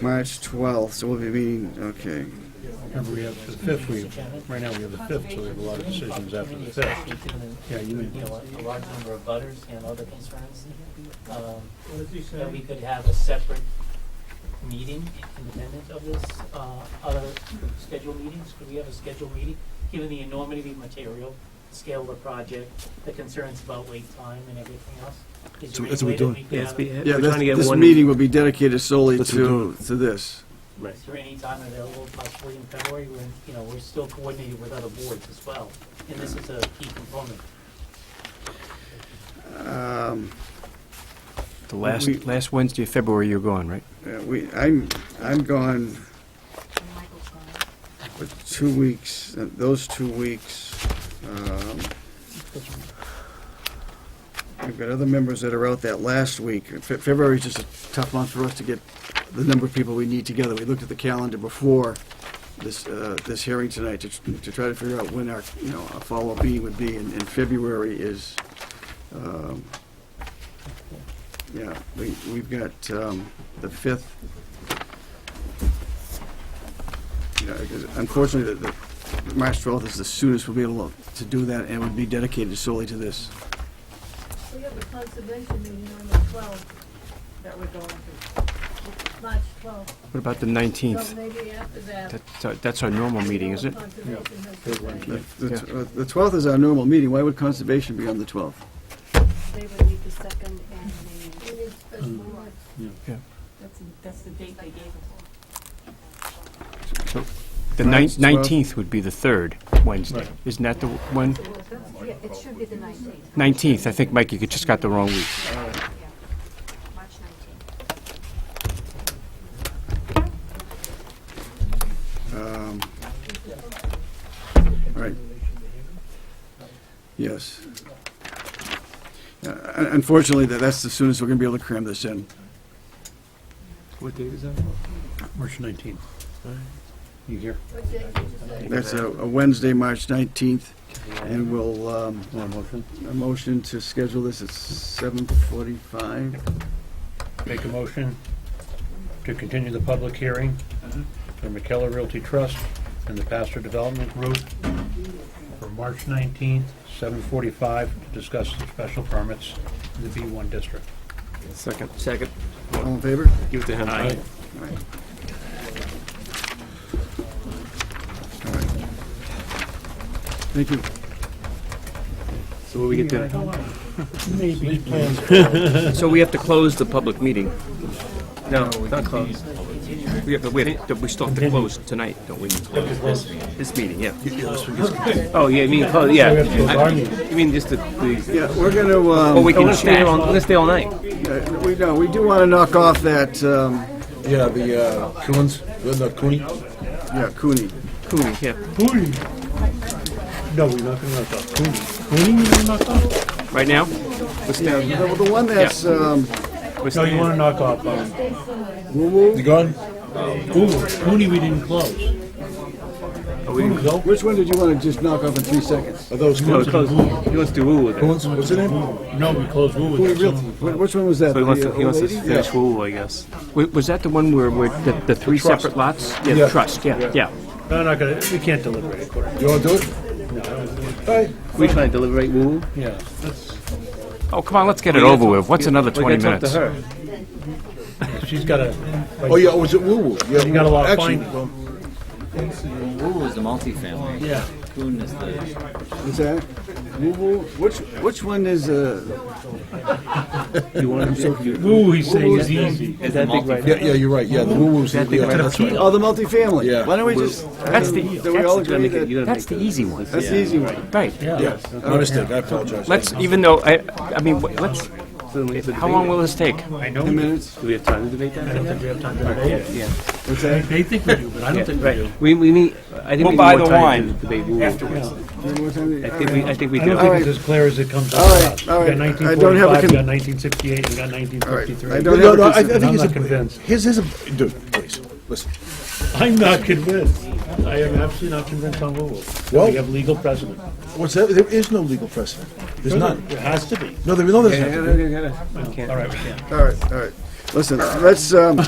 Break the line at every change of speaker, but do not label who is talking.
March 12th, so we'll be meeting, okay.
Remember, we have the fifth, we, right now, we have the fifth, so we have a lot of decisions after the fifth. Yeah, you may-
know, a large number of butters and other concerns. um, That we could have a separate meeting independent of this, uh, other scheduled meetings. Could we have a scheduled meeting, given the enormity of the material, the scale of the project, the concerns about wait time and everything else? Is
So
there
that's
any
what we're
way that
doing.
we could
Yeah, it's
have
be-
a-
we're trying to get
This
one-
meeting will be dedicated solely
That's what we're
to, to this.
Right.
Is there any time available possibly in February when, you know, we're still coordinated with other boards as well? And this is a key component.
Um,
The last, last Wednesday of February, you're gone, right?
yeah, We, I'm, I'm gone for two weeks, uh, those two weeks. um, We've got other members that are out that last week. Fe- February's just a tough month for us to get the number of people we need together. We looked at the calendar before this, uh, this hearing tonight to, tr- to try to figure out when our, you know, our follow-up meeting would be, and, and February is, um, yeah, we, we've got, um, the fifth. Yeah, because unfortunately, the, the, March twelfth is the soonest we'll be able to do that, and would be dedicated solely to this.
We have a conservation meeting on the twelfth that we're going to, March twelfth,
What about the
so
19th?
maybe after that.
That's our- That's our normal meeting, is it?
Conservation has
Third one.
to
The-
say
The tw- uh, the twelfth is our normal meeting, why would conservation be on the twelfth?
They would need the second and
we
the,
need special
Mm.
warrants.
that's, that's the date they gave us.
The
March
nine-
12th.
19th would be the third Wednesday.
Right.
Isn't that the one?
Yeah, it should be the nineteenth.
19th, I think, Mike, you just got the wrong week.
March nineteenth.
Um, All right. Yes. Uh, un- Unfortunately, that, that's the soonest we're gonna be able to cram this in.
What date is that?
March nineteenth. You here?
What day did you say?
That's a a Wednesday, March nineteenth, and we'll, um,
Want a motion?
a motion to schedule this at seven forty-five.
Make a motion to continue the public hearing for McKellar Realty Trust and the Pastor Development Group for March nineteenth, seven forty-five, to discuss the special permits in the B one district.
Second. Second.
All in favor?
Give it to him. Aye.
Thank you.
So will we get to,
Maybe.
so we have to close the public meeting? No, not close. We have, to- we have, to- we still have to close tonight, don't we? This meeting, yeah. Oh, yeah, I mean, close, yeah. I- You mean just the, the,
Yeah, we're gonna, um.
oh, we can stay on, let's stay all night.
Uh, We know, we do want to knock off that, um,
Yeah, the uh, Coons, the Cooney.
yeah, Cooney.
Cool, yeah,
No, we're not gonna knock off Cooney. Cooney, you're gonna knock off?
right now?
Yeah, the, the one that's, um,
Let's
No,
stay
you
in.
wanna knock off, um,
You gone?
Cooney, Cooney we didn't close. Cooney's open.
which one did you want to just knock off in three seconds?
Are those
No,
Coons?
close. He wants to woo with it.
Coons, what's the name?
No, we closed Woo with that.
Wh- Which one was that?
So he wants
The,
to,
uh,
he wants to
old lady?
finish woo, I guess.
Wa- Was that the one where, where the the three separate lots? Yeah, the
Yeah.
trust, yeah, yeah.
No, I'm not gonna, we can't deliberate according.
You wanna do it? Hey,
We trying to deliberate woo?
Yeah, that's,
Oh, come on, let's get it over with. What's another 20 minutes?
she's got a,
oh yeah, was it Woo Woo? Yeah,
you got a lot of
actually,
fine.
Woo is the multifamily.
Yeah.
Coon is the.
What's that? Wh- wh- Which, which one is, uh,
You want to
Woo, he's saying is easy.
Is that big right
Yeah, yeah, you're right. Yeah, the Woo Woo's. Yeah, that's right.
oh, the multifamily?
Yeah.
Why don't we just,
That's the,
do we all agree
You're
that,
gonna
that's
make
the
it.
easy one.
that's the easy one?
Right.
Yeah, my mistake. I apologize.
Let's, even though, I, I mean, wh- let's, how long will this take?
I know.
Ten minutes?
Do we have time to debate that? I don't think we have time to debate it. Yeah,
What's that?
They think we do, but I don't think we do.
right. We, we meet, I think
We'll
we need
buy the
more time to
wine
debate woo. Afterwards.
One more time?
I think we, I think we
I don't
do.
think it's as clear as it comes out.
All right, all right. I don't have a
You got
con-
1965, you got 1968, you got
I
1953.
don't
No,
have
no,
a
I, I
concern.
think
I'm
it's
not
a,
convinced.
Here's, here's a, dude, please, listen.
I'm not convinced. I am absolutely not convinced on Woo Woo.
Well-
We have legal precedent.
What's that? There is no legal precedent. There's none.
There has to be.
No, there, no, there's none.
We can't.
All right, we can't.
All right, all right. Listen, let's, um,